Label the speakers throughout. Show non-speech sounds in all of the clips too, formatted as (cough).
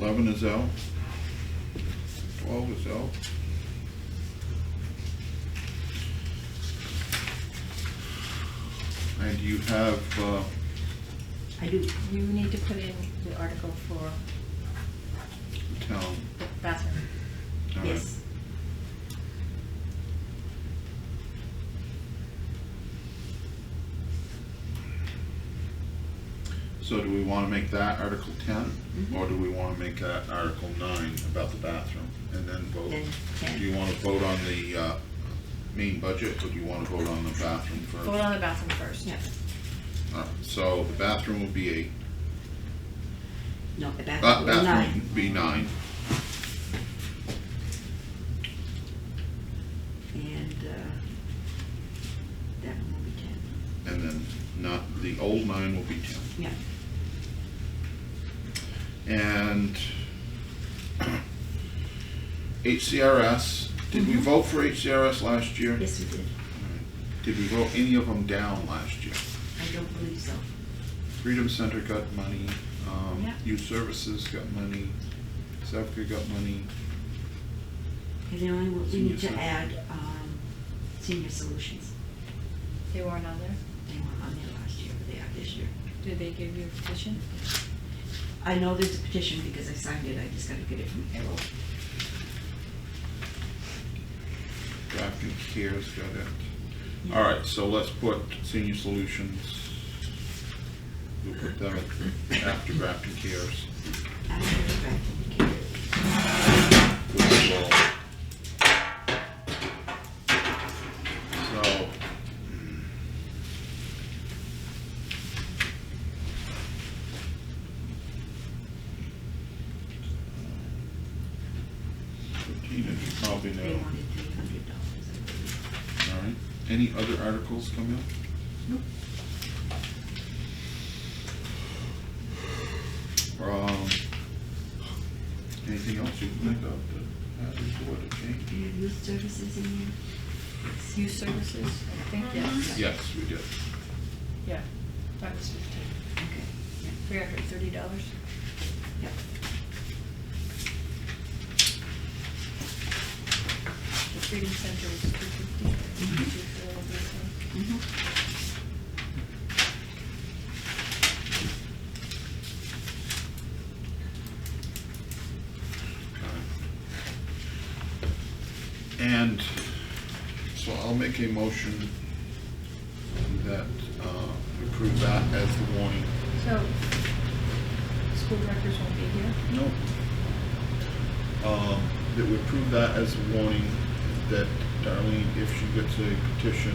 Speaker 1: Eleven is out. Twelve is out. And you have, uh,
Speaker 2: I do. You need to put in the article for
Speaker 1: the town.
Speaker 2: the bathroom.
Speaker 1: All right.
Speaker 2: Yes.
Speaker 1: So do we wanna make that Article ten,
Speaker 2: Mhm.
Speaker 1: or do we wanna make that Article nine about the bathroom, and then vote?
Speaker 2: Then 10.
Speaker 1: Do you wanna vote on the, uh, main budget, or do you wanna vote on the bathroom first?
Speaker 2: Vote on the bathroom first.
Speaker 3: Yeah.
Speaker 1: All right, So the bathroom will be eight,
Speaker 3: No, the
Speaker 1: uh,
Speaker 3: bathroom,
Speaker 1: bathroom
Speaker 3: nine.
Speaker 1: will be nine.
Speaker 3: And, uh, that one will be ten.
Speaker 1: And then not, the old nine will be ten.
Speaker 3: Yeah.
Speaker 1: And (clears throat) HCRS, did we
Speaker 3: Mm-hmm.
Speaker 2: Mhm.
Speaker 1: vote for HCRS last year?
Speaker 2: Yes, we did.
Speaker 1: Did we vote any of them down last year?
Speaker 3: I don't believe so.
Speaker 1: Freedom Center got money, um,
Speaker 3: Yeah.
Speaker 1: Youth Services got money, Sevka got money.
Speaker 3: And the only one, we need to
Speaker 1: Senior
Speaker 3: add, um, senior solutions.
Speaker 2: They weren't on there.
Speaker 3: They weren't on there last year, but they are this year.
Speaker 2: Did they give you a petition?
Speaker 3: I know there's a petition because I signed it, I just gotta get it from Harold.
Speaker 1: Grafton Cares got it.
Speaker 3: Yeah.
Speaker 1: All right, so let's put Senior Solutions. We'll put them at- after Grafton Cares.
Speaker 3: I don't know if I can get it.
Speaker 1: which will- So. Fifteen is probably
Speaker 3: They
Speaker 1: no.
Speaker 3: wanted three hundred dollars, I believe.
Speaker 1: All right. Any other articles coming up?
Speaker 3: Nope.
Speaker 1: Um, anything else you can think of that has to do with the change?
Speaker 3: Do you have youth services in there?
Speaker 2: Youth services, I think, yes.
Speaker 1: Yes, we did.
Speaker 2: Yeah, that was fifteen.
Speaker 3: Okay, yeah,
Speaker 2: Three hundred and thirty dollars.
Speaker 3: yep.
Speaker 2: The Freedom Center was two fifty.
Speaker 3: Mhm.
Speaker 1: And so I'll make a motion that uh, we approve that as the warning.
Speaker 2: So, school directors won't be here?
Speaker 1: No. Um, That we approve that as a warning that Darlene, if she gets a petition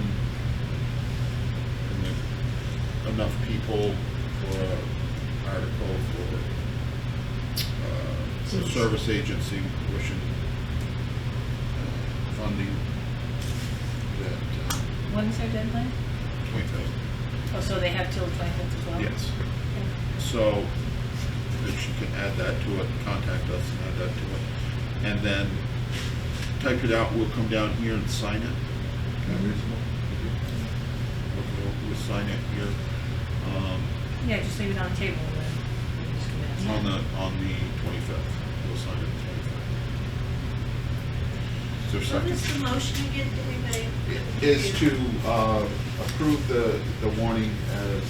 Speaker 1: and if enough people for an article for uh, a
Speaker 3: Yes.
Speaker 1: service agency wishing uh, funding that, uh,
Speaker 2: When's their deadline?
Speaker 1: twenty thousand.
Speaker 2: Oh, so they have till the twenty-fifth as well?
Speaker 1: Yes.
Speaker 2: Okay.
Speaker 1: So, if she can add that to it, contact us and add that to it. And then type it out, we'll come down here and sign it. Kind of reasonable. We'll- We'll, we'll sign it here, um,
Speaker 2: Yeah, just leave it on the table and then. we just come
Speaker 1: on
Speaker 2: back.
Speaker 1: the, on the twenty-fifth. We'll sign it the twenty-fifth. Is there a
Speaker 4: What
Speaker 1: second?
Speaker 4: was the motion again that we made?
Speaker 1: is to uh, approve the, the warning as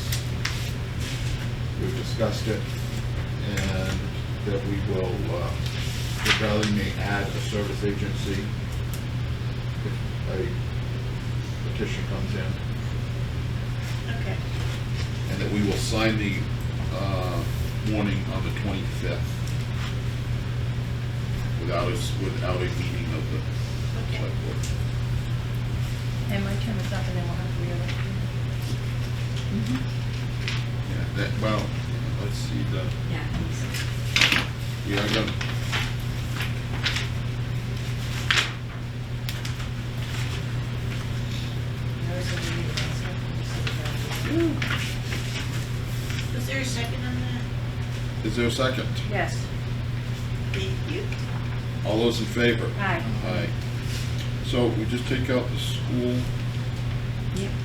Speaker 1: we've discussed it, and that we will, uh, the valley may add a service agency if a petition comes in,
Speaker 4: Okay,
Speaker 1: and that we will sign the uh, warning on the 25th without a, s- without a meeting of the
Speaker 4: okay.
Speaker 1: select board.
Speaker 2: And my term is up and then we'll have to reelect.
Speaker 3: Mm-hmm.
Speaker 1: Yeah, that, well, let's see the.
Speaker 3: Yeah, I think so.
Speaker 1: Yeah, I got it.
Speaker 4: Was there a second on that?
Speaker 1: Is there a second?
Speaker 2: Yes,
Speaker 4: Thank you.
Speaker 1: All those in favor?
Speaker 2: aye.
Speaker 1: Aye. So we just take out the school
Speaker 3: Yep.
Speaker 1: Um,